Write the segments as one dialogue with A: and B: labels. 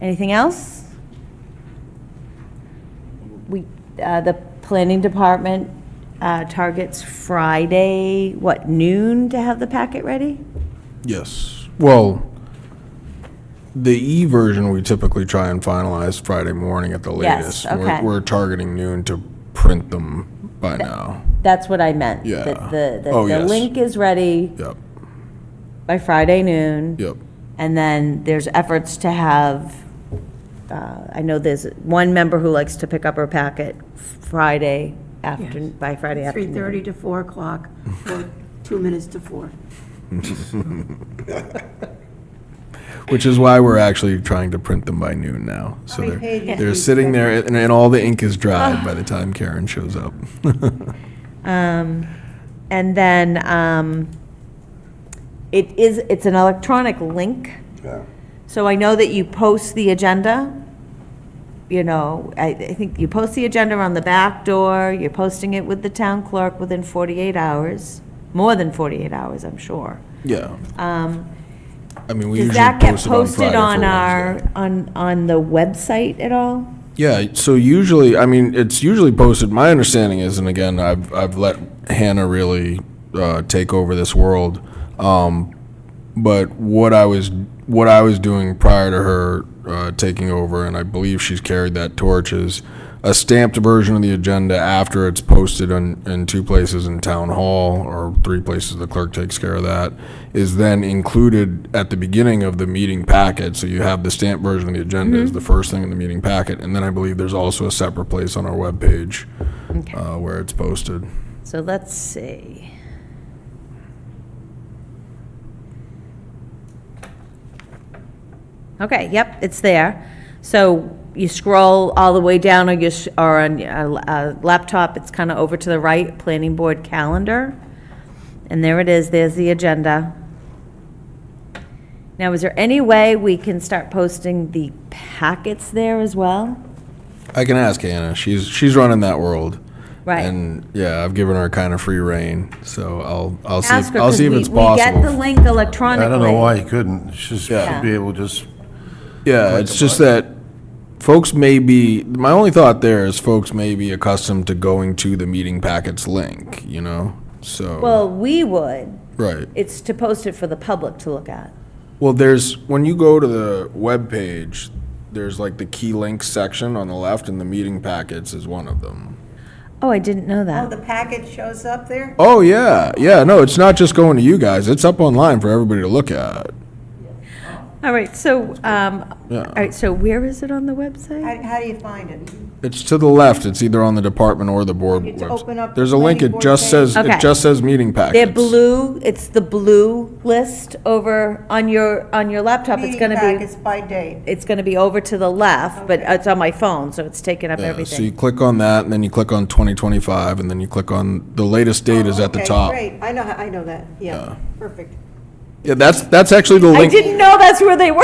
A: Anything else? We, uh, the planning department uh, targets Friday, what, noon to have the packet ready?
B: Yes. Well, the E version we typically try and finalize Friday morning at the
A: Yes,
B: latest. We're-
A: okay.
B: We're targeting noon to print them by now.
A: That's what I meant.
B: Yeah.
A: That the, that
B: Oh,
A: the
B: yes.
A: link is ready
B: Yep,
A: by Friday noon.
B: yep.
A: And then there's efforts to have, uh, I know there's one member who likes to pick up her packet Friday after, by Friday afternoon.
C: 3:30 to 4 o'clock, or two minutes to 4.
B: Which is why we're actually trying to print them by noon now. So they're,
C: pages
B: they're sitting there and, and all the ink is dried by the time Karen shows up.
A: Um, And then um, it is, it's an electronic link. So I know that you post the agenda, you know, I, I think you post the agenda on the back door, you're posting it with the town clerk within 48 hours, more than 48 hours, I'm sure.
B: Yeah. Um. I mean, we
A: Does
B: usually
A: that get
B: post it on
A: posted
B: Friday
A: on
B: for
A: our,
B: Wednesday.
A: on, on the website at all?
B: Yeah, so usually, I mean, it's usually posted, my understanding is, and again, I've, I've let Hannah really, uh, take over this world. Um, but what I was, what I was doing prior to her, uh, taking over, and I believe she's carried that torch, is a stamped version of the agenda after it's posted in, in two places in town hall, or three places, the clerk takes care of that, is then included at the beginning of the meeting packet, so you have the stamped version of the agenda is the first thing in the meeting packet, and then I believe there's also a separate place on our webpage, uh, where it's posted.
A: So let's see. Okay, yep, it's there. So you scroll all the way down on your, s- or on your uh, laptop, it's kind of over to the right, Planning Board Calendar. And there it is, there's the agenda. Now, is there any way we can start posting the packets there as well?
B: I can ask Hannah. She's she's running that world.
A: Right.
B: And yeah, I've given her kind of free reign, so I'll I'll see
A: Ask
B: if,
A: her,
B: I'll
A: 'cause
B: see if
A: we-
B: it's
A: we get the
B: possible.
A: link electronically.
D: I don't know why he couldn't. She
A: Yeah.
D: should be able to just,
B: yeah, it's just that folks may be my only thought there is folks may be accustomed to going to the meeting packets link, you know. So
A: Well, we would.
B: right.
A: It's to post it for the public to look at.
B: Well, there's when you go to the web page, there's like the key links section on the left and the meeting packets is one of them.
A: Oh, I didn't know
E: Oh,
A: that.
E: the packet shows up there?
B: Oh yeah. Yeah, no, it's not just going to you guys. It's up online for everybody to look at.
A: All right, so, um, all
B: Yeah.
A: right, so where is it on the website?
E: How, how do you find it?
B: It's to the left. It's either on the department or the board
E: It's
B: webs-
E: open up the
B: There's a link.
E: planning
B: It
E: board
B: just
E: page.
B: says,
A: Okay.
B: it just says meeting
A: They're
B: packets.
A: blue, it's the blue list over on your, on your laptop. It's
E: Meeting
A: gonna be,
E: packets by date.
A: it's gonna be over to the left, but it's on my phone, so it's taking up
B: Yeah, So you
A: everything.
B: click on that and then you click on 2025 and then you click on, the latest date
A: Oh,
B: is at the
E: Okay,
B: top.
E: Great, I know, how- I know that, yeah, perfect.
B: Yeah, that's, that's actually the
A: I
B: link. Oh.
A: didn't know that's where they were.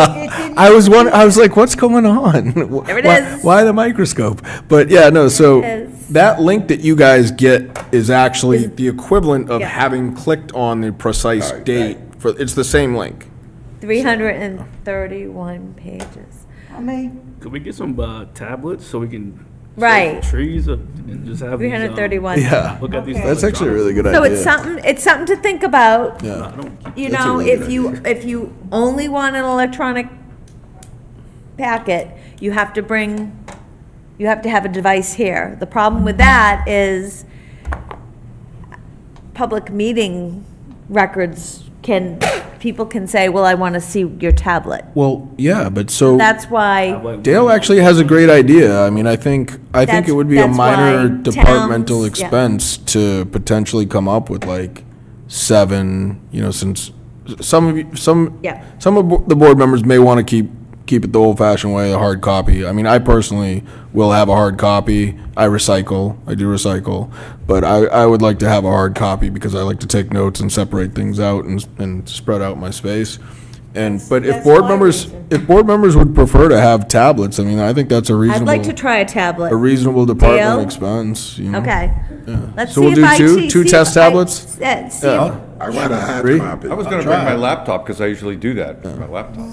E: It didn't-
B: I was one. I was like, "What's going on? There
A: it
B: why,
A: is.
B: why the microscope?" But yeah, no. So
A: is.
B: that link that you guys get is actually the equivalent of
A: Yeah.
B: having clicked on the precise date. For it's the same link.
A: Three hundred and thirty-one pages.
E: I mean.
F: Could we get some uh, tablets so we can save
A: Right.
F: trees or, and just have
A: Three
F: these, um,
A: hundred and thirty-one.
B: Yeah,
F: Look at these.
E: Okay.
B: that's actually a really good
A: So
B: idea.
A: it's something, it's something to think about.
B: Yeah.
F: I don't keep
A: You
B: That's a
A: know,
B: really
A: if
B: good
A: you, if you only want an electronic packet, you have to bring, you have to have a device here. The problem with that is public meeting records can, people can say, well, I want to see your tablet.
B: Well, yeah, but so
A: That's why,
F: like,
B: Dale actually has a great idea. I mean, I think, I think
A: That's-
B: it would be a
A: that's
B: minor
A: why
B: departmental
A: towns- yeah.
B: expense to potentially come up with like seven, you know, since some of you, some,
A: Yeah.
B: some of bo- the board members may want to keep, keep it the old fashioned way, a hard copy. I mean, I personally will have a hard copy. I recycle, I do recycle, but I, I would like to have a hard copy because I like to take notes and separate things out and, and spread out my space. And, but if
E: That's
B: board
E: my
B: members,
E: reason.
B: if board members would prefer to have tablets, I mean, I think that's a
A: I'd like to
B: reasonable,
A: try a
B: a
A: tablet.
B: reasonable department
A: Dale?
B: expense, you know?
A: Okay. Let's see
B: So we'll
A: if
B: do
A: I
B: two-
A: see-
B: two
A: see
B: test
A: if I-
B: tablets?
A: Yeah, see if
B: Yeah.
G: I want a hard
B: Three?
G: copy.
H: I was gonna bring my laptop, because I usually do that, my laptop.